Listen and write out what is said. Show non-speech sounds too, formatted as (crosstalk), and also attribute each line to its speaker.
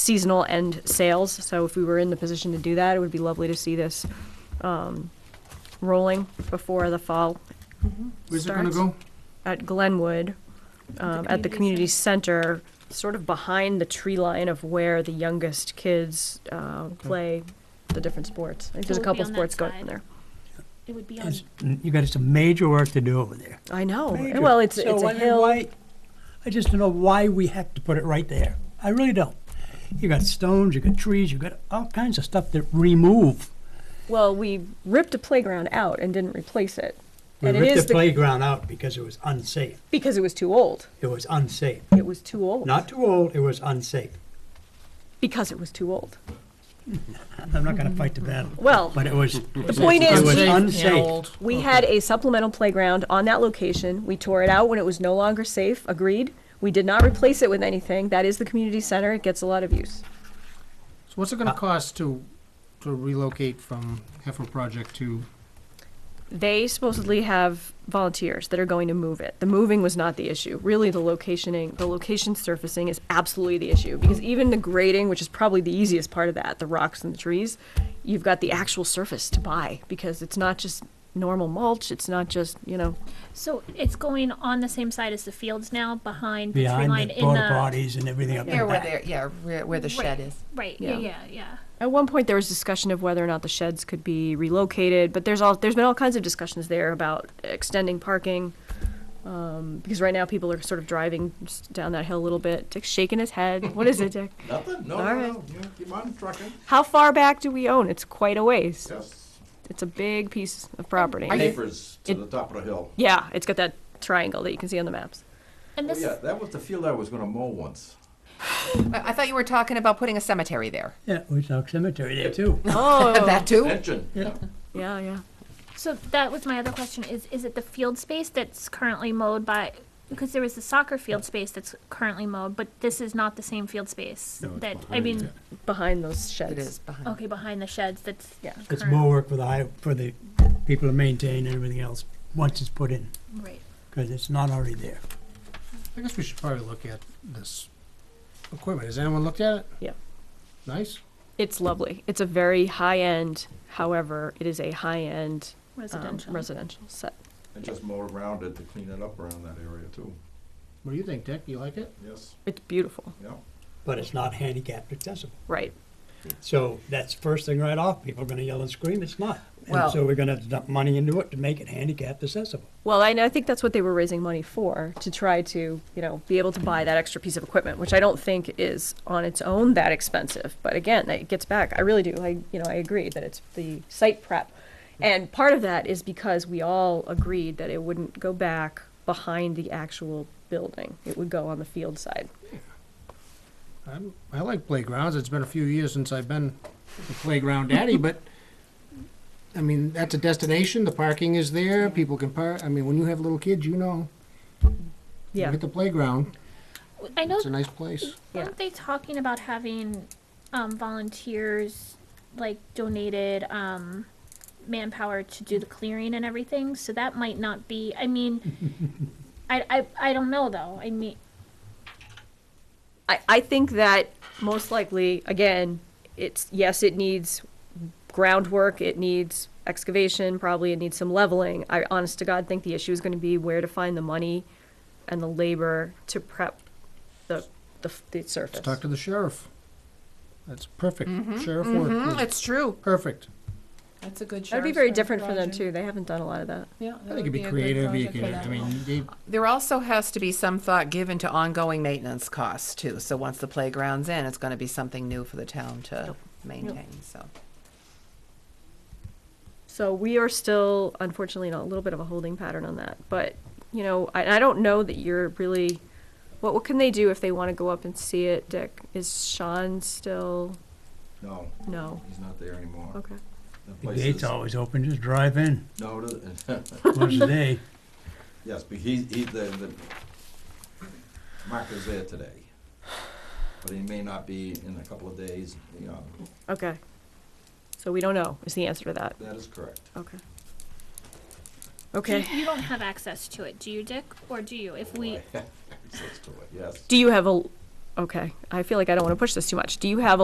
Speaker 1: seasonal and sales. So if we were in the position to do that, it would be lovely to see this um, rolling before the fall
Speaker 2: Where's it gonna
Speaker 1: Starts.
Speaker 2: go?
Speaker 1: at Glenwood, um, at the community center, sort of behind the tree line of where the youngest kids uh, play the different sports. I think there's a
Speaker 3: So it'll be
Speaker 1: couple
Speaker 3: on that
Speaker 1: sports going
Speaker 3: side.
Speaker 1: in there.
Speaker 3: It would be on,
Speaker 4: It's- You got some major work to do over there.
Speaker 1: I know.
Speaker 4: Major.
Speaker 1: Well, it's,
Speaker 4: So
Speaker 1: it's a
Speaker 4: I mean,
Speaker 1: hill.
Speaker 4: why- I just don't know why we have to put it right there. I really don't. You got stones, you got trees, you got all kinds of stuff that remove.
Speaker 1: Well, we ripped a playground out and didn't replace it.
Speaker 4: We
Speaker 1: and it is
Speaker 4: ripped the
Speaker 1: the-
Speaker 4: playground out because it was unsafe.
Speaker 1: because it was too old.
Speaker 4: It was unsafe.
Speaker 1: It was too old.
Speaker 4: Not too old, it was unsafe.
Speaker 1: because it was too old.
Speaker 4: I'm not gonna fight the battle.
Speaker 1: Well,
Speaker 4: But it was,
Speaker 1: the point
Speaker 4: it
Speaker 1: is,
Speaker 4: was
Speaker 1: we-
Speaker 4: unsafe.
Speaker 1: We had a supplemental playground on that location. We tore it out when it was no longer safe, agreed. We did not replace it with anything. That is the community center. It gets a lot of use.
Speaker 2: So what's it gonna cost to, to relocate from Heifer Project to,
Speaker 1: They supposedly have volunteers that are going to move it. The moving was not the issue. Really, the locationing, the location surfacing is absolutely the issue because even the grading, which is probably the easiest part of that, the rocks and the trees, you've got the actual surface to buy because it's not just normal mulch. It's not just, you know,
Speaker 3: so it's going on the same side as the fields now, behind the tree line
Speaker 4: Behind the
Speaker 3: in uh,
Speaker 4: porta
Speaker 3: the.
Speaker 4: potties and everything up in
Speaker 5: Near where
Speaker 4: back.
Speaker 5: there, yeah, where, where the shed is.
Speaker 3: Right, yeah, yeah,
Speaker 1: Yeah.
Speaker 3: yeah.
Speaker 1: At one point, there was discussion of whether or not the sheds could be relocated, but there's all there's been all kinds of discussions there about extending parking, um, because right now people are sort of driving s- down that hill a little bit. Dick's shaking his head. What is it, Dick?
Speaker 6: Nothing, no,
Speaker 1: All
Speaker 6: no,
Speaker 1: right.
Speaker 6: no, you know, keep on trucking,
Speaker 1: How far back do we own? It's quite a ways.
Speaker 6: yes.
Speaker 1: It's a big piece of property.
Speaker 6: Papers to
Speaker 1: it-
Speaker 6: the top of the hill.
Speaker 1: Yeah, it's got that triangle that you can see on the maps.
Speaker 3: And
Speaker 6: Oh,
Speaker 3: this,
Speaker 6: yeah, that was the field I was gonna mow once.
Speaker 5: I I thought you were talking about putting a cemetery there.
Speaker 4: Yeah, we saw a cemetery there too.
Speaker 1: Oh,
Speaker 5: That too?
Speaker 6: Engine,
Speaker 1: yeah, yeah.
Speaker 3: so that was my other question, is, is it the field space that's currently mowed by, because there was the soccer field space that's currently mowed, but this is not the same field space that, I mean,
Speaker 1: Behind those sheds.
Speaker 5: It is behind.
Speaker 3: okay, behind the sheds, that's.
Speaker 1: Yeah.
Speaker 4: It's
Speaker 3: current-
Speaker 4: more work for the high, for the people to maintain and everything else, once it's put in,
Speaker 3: Right.
Speaker 4: because it's not already there.
Speaker 2: I guess we should probably look at this equipment. Has anyone looked at it?
Speaker 1: Yeah.
Speaker 2: Nice.
Speaker 1: It's lovely. It's a very high end. However, it is a high end
Speaker 3: Residential.
Speaker 1: residential set.
Speaker 6: I just mowed around it to clean it up around that area too,
Speaker 2: What do you think, Dick? You like it?
Speaker 6: yes,
Speaker 1: It's beautiful,
Speaker 6: yeah.
Speaker 4: but it's not handicapped accessible.
Speaker 1: right?
Speaker 4: So that's first thing right off, people are gonna yell and scream, it's not.
Speaker 5: Well-
Speaker 4: And so we're gonna have to dump money into it to make it handicapped accessible.
Speaker 1: Well, I, I think that's what they were raising money for, to try to, you know, be able to buy that extra piece of equipment, which I don't think is on its own that expensive. But again, it gets back, I really do, I, you know, I agree that it's the site prep. And part of that is because we all agreed that it wouldn't go back behind the actual building. It would go on the field side.
Speaker 2: I'm, I like playgrounds. It's been a few years since I've been a playground daddy, but I mean, that's a destination. The parking is there. People can park. I mean, when you have little kids, you know. You
Speaker 1: Yeah,
Speaker 2: Hit the playground.
Speaker 3: I know
Speaker 2: It's a nice place.
Speaker 1: Yeah.
Speaker 3: Weren't they talking about having um, volunteers like donated um, manpower to do the clearing and everything? So that might not be. I mean, I, I I don't know though. I mean,
Speaker 1: I, I think that most likely, again, it's, yes, it needs groundwork, it needs excavation, probably it needs some leveling. I honest to God think the issue is gonna be where to find the money and the labor to prep the, the, f- the surface.
Speaker 2: Talk to the sheriff. That's perfect.
Speaker 1: Mm-hmm.
Speaker 2: Sheriff
Speaker 5: Mm,
Speaker 2: work.
Speaker 5: It's true.
Speaker 2: Perfect.
Speaker 7: That's a good
Speaker 1: That'd be
Speaker 7: sheriff's
Speaker 1: very
Speaker 7: pro-
Speaker 1: different for them
Speaker 7: project.
Speaker 1: too, they haven't done a lot of that.
Speaker 7: Yeah,
Speaker 2: I
Speaker 7: that
Speaker 2: think
Speaker 7: would
Speaker 2: it'd be
Speaker 7: a good
Speaker 2: creative. You
Speaker 7: project for
Speaker 2: can,
Speaker 7: that
Speaker 2: I mean,
Speaker 7: one.
Speaker 2: they-
Speaker 5: There also has to be some thought given to ongoing maintenance costs too. So once the playground's in, it's gonna be something new for the town to maintain, so.
Speaker 1: So we are still, unfortunately, in a little bit of a holding pattern on that. But, you know, I, I don't know that you're really, what, what can they do if they wanna go up and see it, Dick? Is Sean still,
Speaker 6: No,
Speaker 1: no,
Speaker 6: he's not there anymore.
Speaker 1: okay.
Speaker 6: The
Speaker 4: The
Speaker 6: place
Speaker 4: gate's
Speaker 6: is-
Speaker 4: always open, just drive in,
Speaker 6: No, it-
Speaker 4: once a day.
Speaker 6: (laughs) yes, but he, he, the, the marker's there today. But he may not be in a couple of days, you know,
Speaker 1: Okay. So we don't know is the answer to that.
Speaker 6: that is correct.
Speaker 1: Okay.
Speaker 3: do
Speaker 1: Okay.
Speaker 3: you, you don't
Speaker 6: (laughs)
Speaker 3: have access to it, do you, Dick, or do you? If we,
Speaker 6: Access to it, Yes,
Speaker 1: Do you have a okay, I feel like I don't want to push this too much. Do you have a